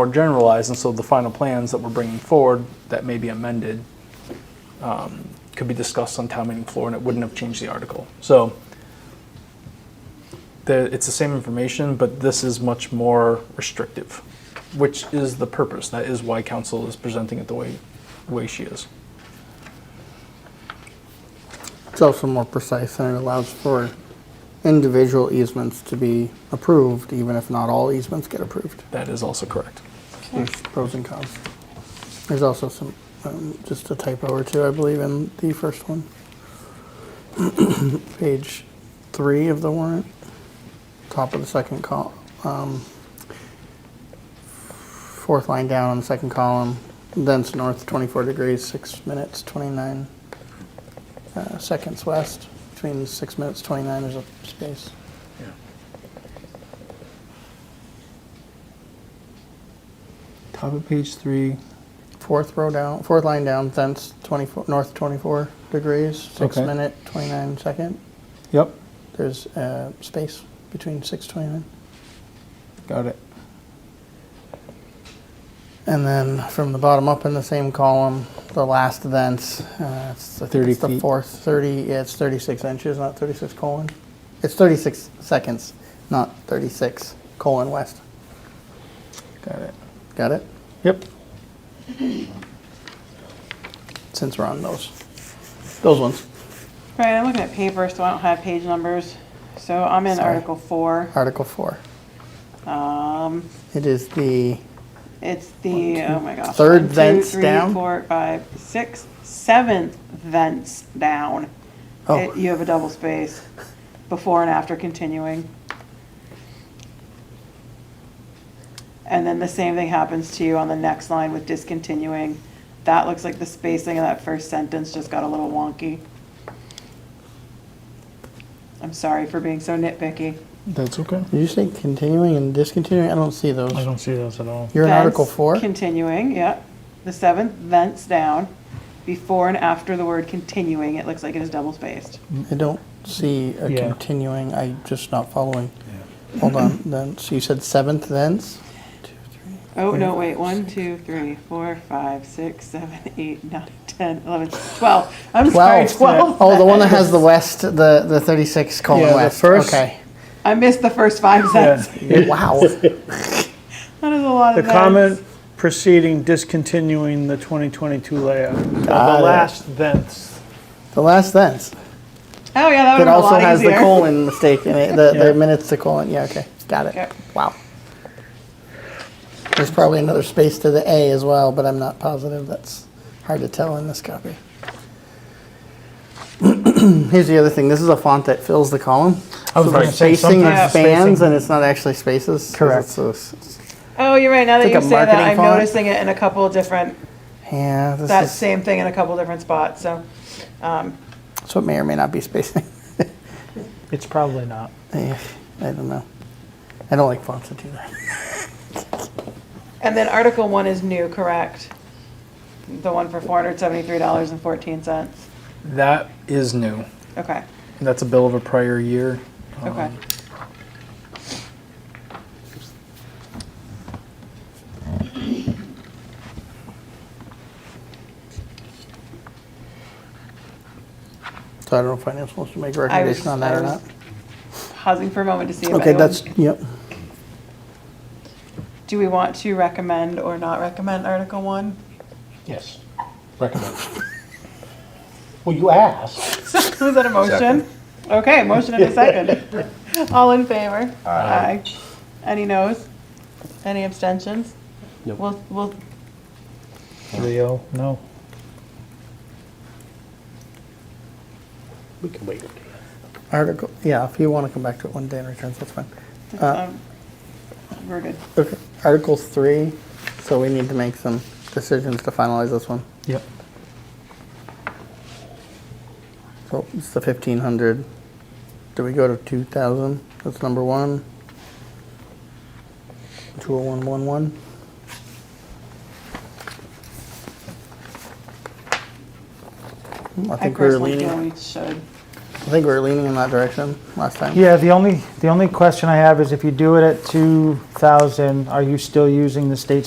more generalized, and so the final plans that we're bringing forward that may be amended um, could be discussed on town meeting floor, and it wouldn't have changed the article. So the, it's the same information, but this is much more restrictive, which is the purpose. That is why council is presenting it the way, way she is. It's also more precise and it allows for individual easements to be approved, even if not all easements get approved. That is also correct. There's pros and cons. There's also some, um, just a typo or two, I believe, in the first one. Page three of the warrant, top of the second col, um, fourth line down on the second column, thence north 24 degrees, six minutes, 29 uh, seconds west. Between six minutes, 29, there's a space. Top of page three. Fourth row down, fourth line down, thence 24, north 24 degrees, six Okay. minute, 29 second. Yep, There's uh, space between 629. got it. And then from the bottom up in the same column, the last thence, uh, it's, I think 30 it's the feet. fourth, 30, yeah, it's 36 inches, not 36 colon. It's 36 seconds, not 36 colon west. Got it. Got it? Yep. Since we're on those, those ones. Right, I'm looking at paper, so I don't have page numbers. So I'm in Sorry. Article Four. Article 4. Um, It is the, it's the, oh my gosh. Third one, two, thence three, down? four, five, six, seventh thence down. Oh. It- You have a double space, before and after continuing. And then the same thing happens to you on the next line with discontinuing. That looks like the spacing of that first sentence just got a little wonky. I'm sorry for being so nitpicky. That's okay. did you say continuing and discontinuing? I don't see those. I don't see those at all. You're in Thence, Article 4? Continuing, yeah. The seventh, thence down, before and after the word continuing, it looks like it is double spaced. I don't see a Yeah. continuing, i just not following. Hold on, then, so you said seventh thence? Oh, no, wait, one, two, three, four, five, six, seven, eight, nine, ten, eleven, twelve. I'm sorry, twelve. Oh, the one that has the west, the, the thirty-six Yeah, colon the west, first- okay. I missed the first five sentences. Wow, That is a lot The of comment thens. preceding discontinuing the 2022 layout. The Got it. last thence. the last thence, Oh, yeah, that that would have been a also lot has the easier. colon mistake in it, the, Yeah. the minutes to colon, yeah, okay, got Okay. it, wow. There's probably another space to the A as well, but I'm not positive, that's hard to tell in this copy. Here's the other thing, this is a font that fills the column. I was So the spacing sometimes is the spans and it's not actually spaces. 'cause Correct. it's those- Oh, you're right, now that It's you like a say that, marketing I'm font. noticing it in a couple of different, yeah, this that is- same thing in a couple of different spots, so. so it may or may not be spacing. It's probably not. Eh, I don't know. I don't like fonts that do that. And then Article One is new, correct? The one for four hundred seventy-three dollars and fourteen cents. That is new. Okay, That's a bill of a prior year. Um, Um, okay. So I don't know if finance wants to make a I was- recommendation on that I or was not. Pausing for a moment to see if Okay, anyone, that's, yep. do we want to recommend or not recommend Article One? Yes, recommend. Well, you asked. Was that a motion? Okay, motion and a second. All in favor? Aye. Any noes? Any abstentions? Nope. We'll, we'll, Three oh, no. We can wait. Article, yeah, if you want to come back to it one day in returns, that's fine. um, we're good. Okay, Article three, so we need to make some decisions to finalize this one. Yep. So it's the fifteen hundred. Do we go to two thousand? That's number one. Two oh one one one. I I think we were personally leaning, feel I we should. think we were leaning in that direction last time. Yeah, the only, the only question I have is if you do it at 2,000, are you still using the state